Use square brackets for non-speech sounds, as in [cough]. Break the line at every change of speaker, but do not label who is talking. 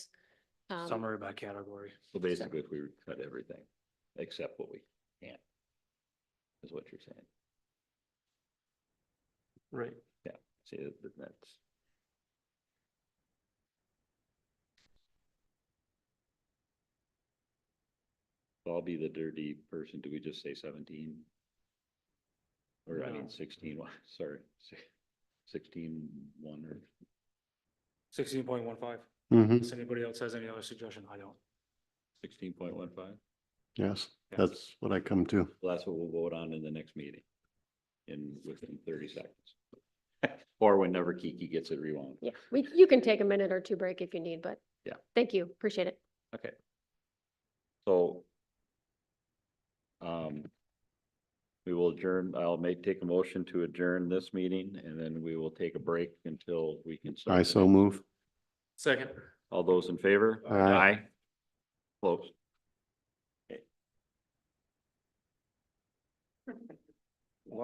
Um,
summary by category.
So basically, if we cut everything except what we can't, is what you're saying.
Right.
See, that- that- that's, I'll be the dirty person. Do we just say seventeen? Or I
No.
mean sixteen, [laughs] wha- sorry, si- sixteen one or,
Sixteen point one five.
hmm
Does anybody else has any other suggestion? I don't.
sixteen point one five?
yes,
Yeah.
that's what I come to.
Well, That's what we'll vote on in the next meeting, in within thirty seconds. [laughs] Or whenever Kiki gets it rewound.
Yeah, we, you can take a minute or two break if you need, but.
Yeah.
Thank you, appreciate it.
Okay. So. Um. We will adjourn, I'll make, take a motion to adjourn this meeting and then we will take a break until we can. start
I
the
so
next.
move.
Second.
All those in favor?
Aye.
Aye.